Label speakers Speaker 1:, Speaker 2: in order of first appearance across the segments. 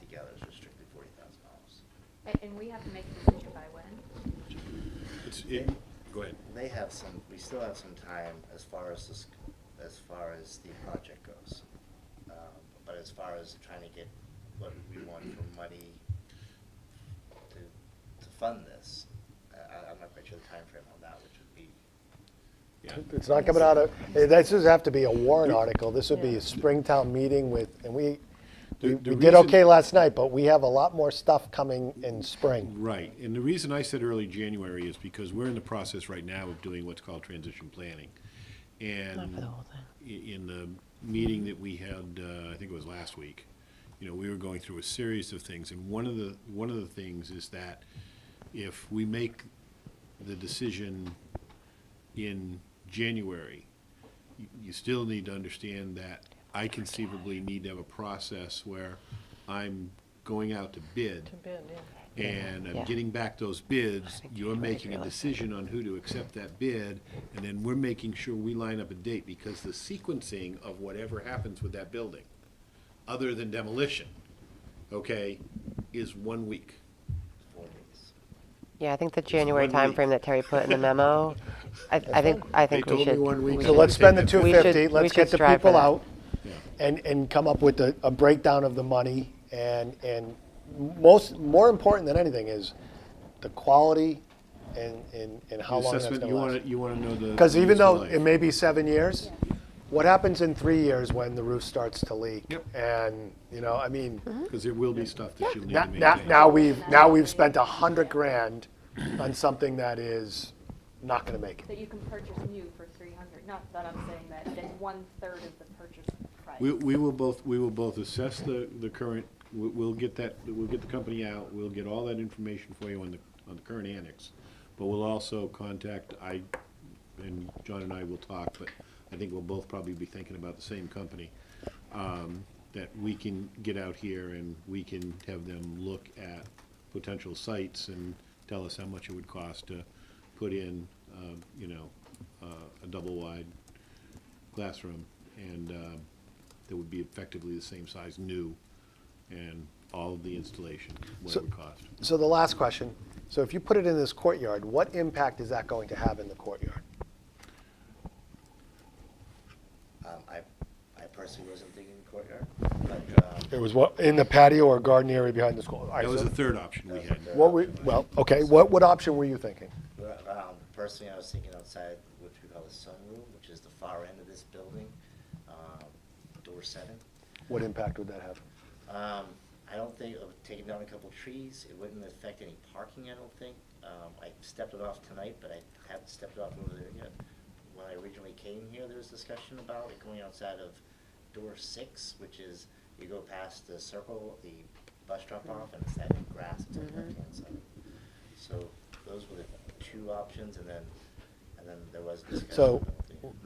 Speaker 1: together is restricted forty thousand dollars.
Speaker 2: And, and we have to make a decision by when?
Speaker 3: It's, it, go ahead.
Speaker 1: They have some, we still have some time as far as this, as far as the project goes. Um, But as far as trying to get what we want for money to, to fund this, I- I, I'm not quite sure the timeframe on that, which would be,
Speaker 3: Yeah.
Speaker 4: It's not coming out of, eh, this does have to be a warrant article. This would be
Speaker 2: Yeah.
Speaker 4: a Springtown meeting with, and we, we
Speaker 3: The- the
Speaker 4: we did
Speaker 3: reason-
Speaker 4: okay last night, but we have a lot more stuff coming in spring.
Speaker 3: Right, and the reason I said early January is because we're in the process right now of doing what's called transition planning. And i- in the meeting that we had, uh, I think it was last week, you know, we were going through a series of things, and one of the, one of the things is that if we make the decision in January, you- you still need to understand that I conceivably need to have a process where I'm going out to bid and I'm getting back those bids, you're making a decision on who to accept that bid, and then we're making sure we line up a date, because the sequencing of whatever happens with that building, other than demolition, okay, is one week.
Speaker 1: four days.
Speaker 5: Yeah, I think the January
Speaker 3: one week.
Speaker 5: timeframe that Terry put in the memo, I, I think, I
Speaker 3: They
Speaker 5: think we
Speaker 3: told
Speaker 5: should.
Speaker 3: me one week.
Speaker 4: So let's spend the
Speaker 3: Take that-
Speaker 4: two
Speaker 5: We should-
Speaker 4: fifty,
Speaker 5: we
Speaker 4: let's
Speaker 5: should
Speaker 4: get the
Speaker 5: strive for
Speaker 4: people
Speaker 5: that.
Speaker 4: out
Speaker 3: Yeah.
Speaker 4: and, and come up with a, a breakdown of the money. And, and most, more important than anything is the quality and, and, and how long that's
Speaker 3: Assessment,
Speaker 4: gonna
Speaker 3: you wanna-
Speaker 4: last.
Speaker 3: You wanna know the.
Speaker 4: Because
Speaker 3: the
Speaker 4: even
Speaker 3: useful
Speaker 4: though
Speaker 3: life.
Speaker 4: it may be seven years, what happens in three years when the roof starts to leak?
Speaker 3: Yep.
Speaker 4: And, you know, I mean,
Speaker 3: Cause there will be stuff that you'll need
Speaker 4: now,
Speaker 3: to
Speaker 4: now,
Speaker 3: maintain.
Speaker 4: now we've, now we've spent a hundred grand on something that is not gonna make it.
Speaker 2: That you can purchase new for three hundred, not that I'm saying that, then one-third of the purchase price.
Speaker 3: We, we will both, we will both assess the, the current, we- we'll get that, we'll get the company out, we'll get all that information for you on the, on the current annex. But we'll also contact, I, and John and I will talk, but I think we'll both probably be thinking about the same company. um, That we can get out here and we can have them look at potential sites and tell us how much it would cost to put in, um, you know, uh, a double-wide classroom, and um, that would be effectively the same size new, and all of the installation, what
Speaker 4: So-
Speaker 3: it would cost.
Speaker 4: So the last question, so if you put it in this courtyard, what impact is that going to have in the courtyard?
Speaker 1: Um, I, I personally wasn't thinking courtyard, but, um,
Speaker 4: It was what, in the patio or garden area behind the school? All right,
Speaker 3: That was
Speaker 4: so
Speaker 3: the third option we had.
Speaker 4: What we, well, okay, what, what option were you thinking?
Speaker 1: Well, Um, personally, I was thinking outside, which we call the sunroom, which is the far end of this building, um, door seven.
Speaker 4: What impact would that have?
Speaker 1: Um, I don't think, of taking down a couple trees, it wouldn't affect any parking, I don't think. Um, I stepped it off tonight, but I haven't stepped it off over there yet. When I originally came here, there was discussion about it going outside of door six, which is, you go past the circle, the bus drop off, and it's that grass, it's on the left-hand side. So those were the two options, and then, and then there was discussion.
Speaker 4: So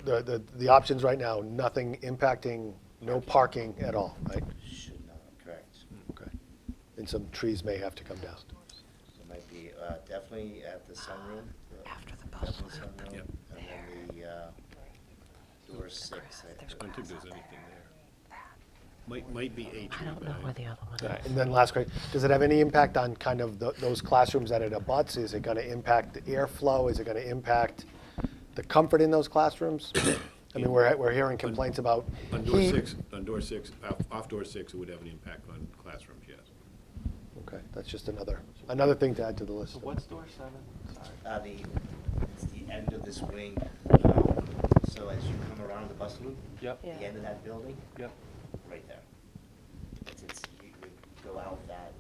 Speaker 1: about the-
Speaker 4: the, the, the options right now, nothing impacting, no parking at all, right?
Speaker 1: Should not, correct.
Speaker 4: Okay. And some trees may have to come down.
Speaker 1: It might be, uh, definitely at the sunroom. After the bus sunroom,
Speaker 3: Yep.
Speaker 1: And then the, uh, door six, I
Speaker 3: I don't think there's anything there. Might, might be eight. I don't know whether.
Speaker 4: And then last question, does it have any impact on kind of tho- those classrooms that it abuts? Is it going to impact the airflow? Is it going to impact the comfort in those classrooms? I mean, we're, we're hearing complaints about
Speaker 3: On door
Speaker 4: heat.
Speaker 3: six, on door six, off, off door six, it would have an impact on classrooms, yes.
Speaker 4: Okay, that's just another, another thing to add to the list.
Speaker 6: So what's door seven? Sorry.
Speaker 1: Uh, the, it's the end of this wing, um, so as you come around the bus loop,
Speaker 6: Yep,
Speaker 1: the end of that building,
Speaker 6: yep.
Speaker 1: right there. It's, it's, you, you go out that,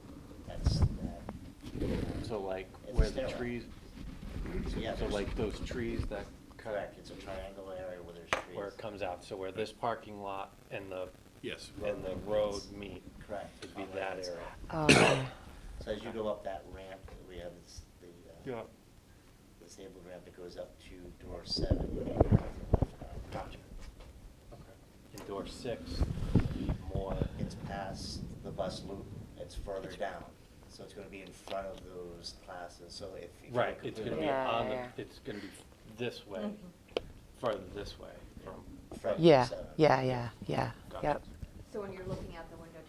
Speaker 1: that's, that.
Speaker 6: So like
Speaker 1: It's a
Speaker 6: where the
Speaker 1: stairwell.
Speaker 6: trees,
Speaker 1: So, yeah,
Speaker 6: so
Speaker 1: there's-
Speaker 6: like those trees that cut
Speaker 1: Correct, it's a triangle area where there's trees.
Speaker 6: where it comes out, so where this parking lot and the,
Speaker 3: Yes.
Speaker 6: and the road meet.
Speaker 1: Correct.
Speaker 6: Would be that area.
Speaker 5: Oh,
Speaker 1: So as you go up that ramp, we have this, the, uh,
Speaker 6: Yeah.
Speaker 1: disabled ramp that goes up to door seven.
Speaker 6: Gotcha. And door six would be more,
Speaker 1: It's past the bus loop, it's further down, so it's gonna be in front of those classes, so if. if you go
Speaker 6: right, it's gonna be
Speaker 1: completely
Speaker 5: Yeah,
Speaker 6: on
Speaker 5: yeah, Mm-hmm.
Speaker 6: the, it's gonna be this way, further this way from,
Speaker 1: front of
Speaker 5: yeah,
Speaker 1: seven,
Speaker 5: yeah, yeah, yeah, yep.
Speaker 2: So when you're looking out the